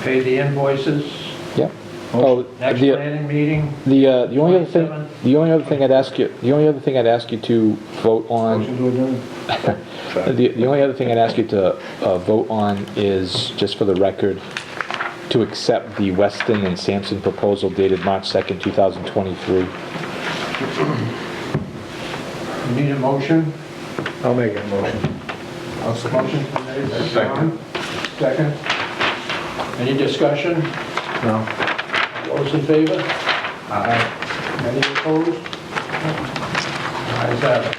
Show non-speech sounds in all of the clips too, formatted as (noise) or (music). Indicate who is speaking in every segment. Speaker 1: pay the invoices.
Speaker 2: Yep. Oh,
Speaker 1: Next
Speaker 2: the,
Speaker 1: planning meeting,
Speaker 2: the, uh, the only other thing,
Speaker 1: 27.
Speaker 2: the only other thing I'd ask you, the only other thing I'd ask you to vote on,
Speaker 3: Motion to adjourn.
Speaker 2: the, the only other thing I'd ask you to, uh, vote on is, just for the record, to accept the Weston and Sampson proposal dated March 2nd, 2023.
Speaker 1: you need a motion?
Speaker 3: I'll make a motion.
Speaker 1: I'll Motion from Dave, that's John. Second. Any discussion?
Speaker 3: No.
Speaker 1: Those in favor? Any opposed? Ayes have it.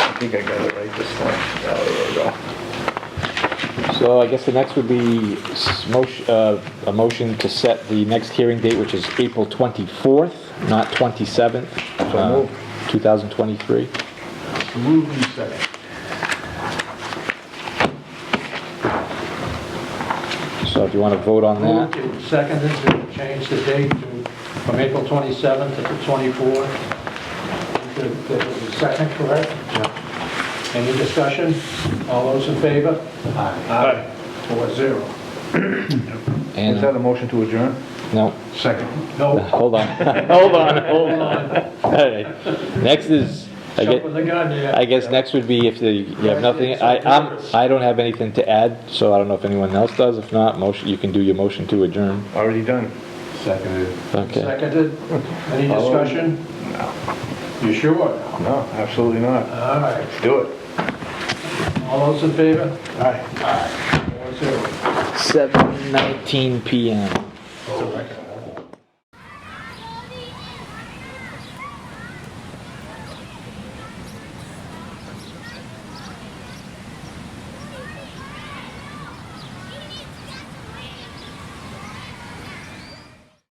Speaker 3: I think I got it right this time. Oh, there we go.
Speaker 2: So I guess the next would be s- motion- uh, a motion to set the next hearing date, which is April 24th, not 27th, uh,
Speaker 3: moved.
Speaker 2: 2023.
Speaker 3: Move in second.
Speaker 2: So if you want to vote on
Speaker 1: Moved
Speaker 2: that,
Speaker 1: and seconded to change the date to, from April 27th to the 24th. That- That was the second, correct? Any discussion? All those in favor? Aye. Four zero.
Speaker 3: Is that
Speaker 2: and,
Speaker 3: a motion to adjourn?
Speaker 2: no,
Speaker 3: Second.
Speaker 1: No,
Speaker 2: hold
Speaker 3: (laughs)
Speaker 2: on, hold on, hold (laughs) on. All right. Next is, I
Speaker 1: jump
Speaker 2: guess,
Speaker 1: with the gun, yeah.
Speaker 2: I guess next would be if the- you have nothing, I, I'm, I don't have anything to add, so I don't know if anyone else does. If not, motion, you can do your motion to adjourn.
Speaker 3: Already done.
Speaker 4: Seconded.
Speaker 2: Okay.
Speaker 1: Seconded. Any discussion? No. You sure?
Speaker 3: No, absolutely not.
Speaker 1: All right.
Speaker 3: Do it.
Speaker 1: All those in favor?
Speaker 3: Aye.
Speaker 1: Four zero.
Speaker 2: 7:19 PM.